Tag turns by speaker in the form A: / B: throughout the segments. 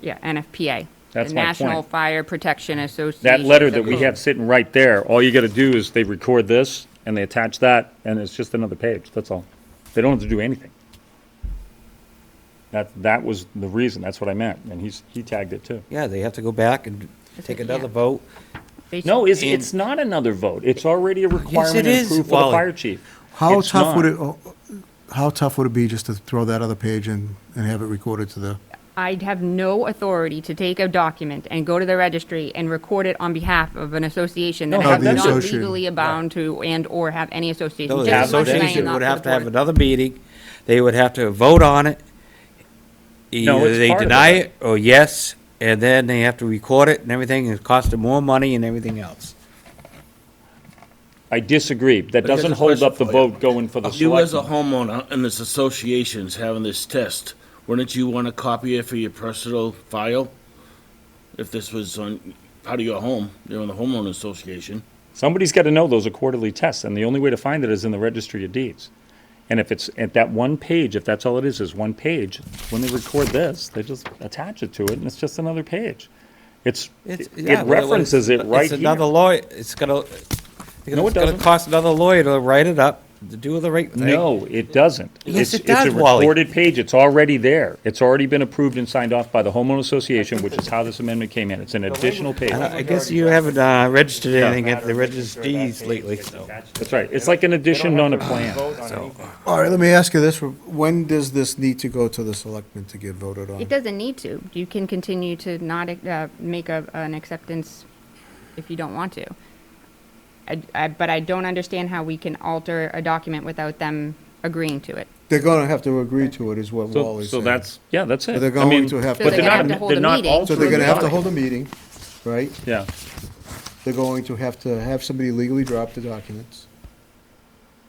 A: yeah, NFPA.
B: That's
A: the
B: my
A: National
B: point.
A: Fire Protection Association.
B: That letter
A: of
B: that we
A: Korea.
B: have sitting right there, all you gotta do is they record this and they attach that and it's just another page, that's all. They don't have to do anything. That, that was the reason, that's what I meant, and he's, he tagged it too.
C: Yeah, they have to go back and take
A: they
C: another
A: can't.
C: vote.
A: They
B: No,
A: should-
B: it's, it's not another vote, it's already a requirement and
C: is,
B: proof for the
C: Wally.
B: fire chief.
D: How
B: It's
D: tough would
B: not.
D: it, oh, how tough would it be just to throw that other page in and have it recorded to the,
A: I'd have no authority to take a document and go to the registry and record it on behalf of an association that
B: No,
A: I'm
B: the
A: not
D: association.
A: legally bound to and/or have any association.
C: No, the
A: Just like the
C: association
A: Lions Not
C: would have
A: for
C: to
A: the
C: have
A: Board.
C: another meeting. They would have to vote on it.
B: No,
C: Either
B: it's
C: they
B: part of
C: deny
B: it.
C: it or yes, and then they have to record it and everything. It costs them more money and everything else.
B: I disagree, that
E: But here's
B: doesn't
E: a
B: hold up the
E: question for you.
B: vote going for the
E: If you as a
B: selectmen.
E: homeowner and this association's having this test, wouldn't you want to copy it for your personal file? If this was on, part of your home, you're in the homeowner association.
B: Somebody's gotta know those are quarterly tests, and the only way to find it is in the registry of deeds. And if it's, at that one page, if that's all it is, is one page, when they record this, they just attach it to it, and it's just another page. It's,
C: It's- yeah,
B: it
C: well, it's-
B: references it right
C: It's another
B: here.
C: lawyer, it's gonna,
B: No, it
C: it's gonna
B: doesn't.
C: cost another lawyer to write it up, to do the right thing.
B: No, it doesn't. It's-
C: Yes, it does,
B: It's a
C: Wally.
B: recorded page, it's already there. It's already been approved and signed off by the homeowner association, which is how this amendment came in. It's an additional page.
C: I don't- I guess you haven't uh, registered anything at the registries lately, so.
B: That's right, it's like an addition on a plan.
D: all right, let me ask you this, when does this need to go to the selectmen to get voted on?
A: It doesn't need to. You can continue to not uh, make a, an acceptance if you don't want to. I, I, but I don't understand how we can alter a document without them agreeing to it.
D: They're gonna have to agree to it, is what
B: So,
D: Wally's
B: so
D: saying.
B: that's, yeah, that's it.
D: But they're
B: I mean,
D: going to have
A: So
D: to-
B: But they're
A: gonna
B: not,
A: have to hold a
B: they're not
A: meeting.
D: So
B: altering
D: they're gonna have to
B: the
D: hold a meeting, right?
B: document. Yeah.
D: They're going to have to have somebody legally drop the documents.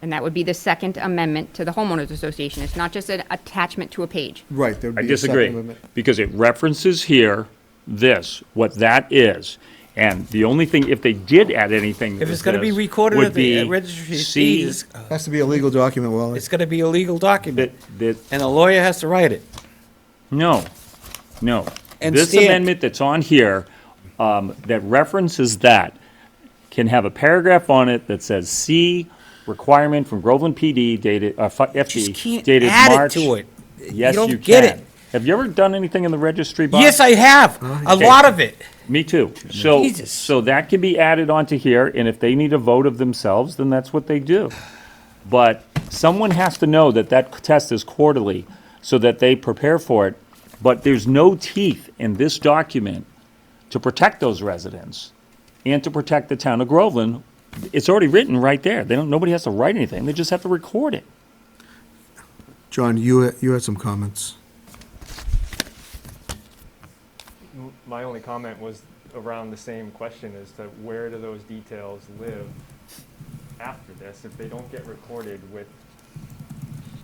A: And that would be the Second Amendment to the homeowners association. It's not just an attachment to a page.
D: Right, there'd
B: I
D: be a second
B: disagree,
D: amendment.
B: because it references here, this, what that is. And the only thing, if they did add anything that
C: If
B: was
C: it's gonna be
B: this,
C: recorded
B: would
C: at the uh,
B: be
C: registry of
B: see
C: deeds,
D: Has to be a legal document, Wally.
C: it's gonna be a legal document,
B: That, that,
C: and a lawyer has to write it.
B: no, no.
C: And
B: This
C: stand-
B: amendment that's on here, um, that references that, can have a paragraph on it that says, see requirement from Groveland PD dated, uh, fi-
C: Just
B: FD
C: can't
B: dated
C: add it
B: March.
C: to it.
B: Yes,
C: don't
B: you
C: get it.
B: can. Have you ever done anything in the registry box?
C: Yes, I have, a
B: Okay.
C: lot of it.
B: Me too. So,
C: Jesus.
B: so that can be added onto here, and if they need a vote of themselves, then that's what they do. But someone has to know that that test is quarterly, so that they prepare for it. But there's no teeth in this document to protect those residents and to protect the town of Groveland. It's already written right there. They don't, nobody has to write anything. They just have to record it.
D: John, you, you had some comments.
F: My only comment was around the same question as to where do those details live after this? If they don't get recorded with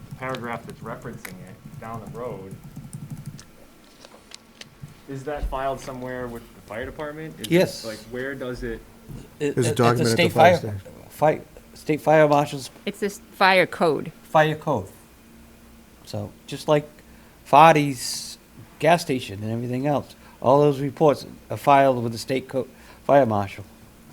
F: the paragraph that's referencing it down the road, is that filed somewhere with the fire department? Is it,
C: Yes.
F: Like, where does it?
D: There's a
C: It's
D: document at the
C: state
D: fire
C: Fire, state fire marshal's
A: It's this fire code.
C: fire code. So, just like Fadi's gas station and everything else, all those reports are filed with the state co, fire marshal.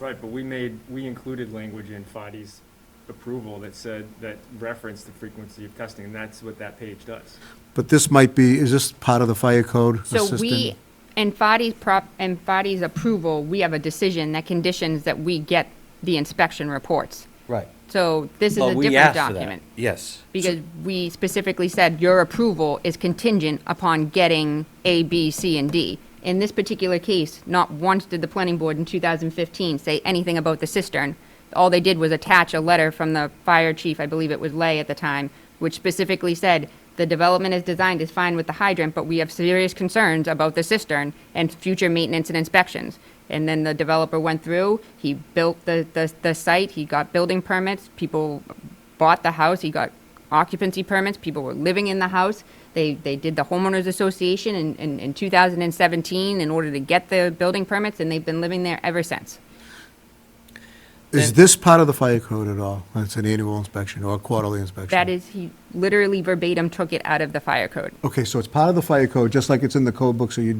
F: Right, but we made, we included language in FADI's approval that said, that referenced the frequency of testing, and that's what that page does.
D: But this might be, is this part of the fire code
A: So
D: assistant?
A: we, and Fadi's prop, and Fadi's approval, we have a decision that conditions that we get the inspection reports.
C: Right.
A: So this is a
C: But we
A: different
C: asked for that.
A: document.
C: Yes.
A: Because we specifically said your approval is contingent upon getting A, B, C, and D. In this particular case, not once did the planning board in 2015 say anything about the cistern. All they did was attach a letter from the fire chief, I believe it was Lay at the time, which specifically said, "The development as designed is fine with the hydrant, but we have serious concerns about the cistern and future maintenance and inspections." And then the developer went through, he built the, the, the site, he got building permits, people bought the house, he got occupancy permits, people were living in the house. They, they did the homeowners association in, in, in 2017 in order to get the building permits, and they've been living there ever since.
D: Is this part of the fire code at all? It's an annual inspection or a quarterly inspection?
A: That is, he literally verbatim took it out of the fire code.
D: Okay, so it's part of the fire code, just like it's in the code book, so you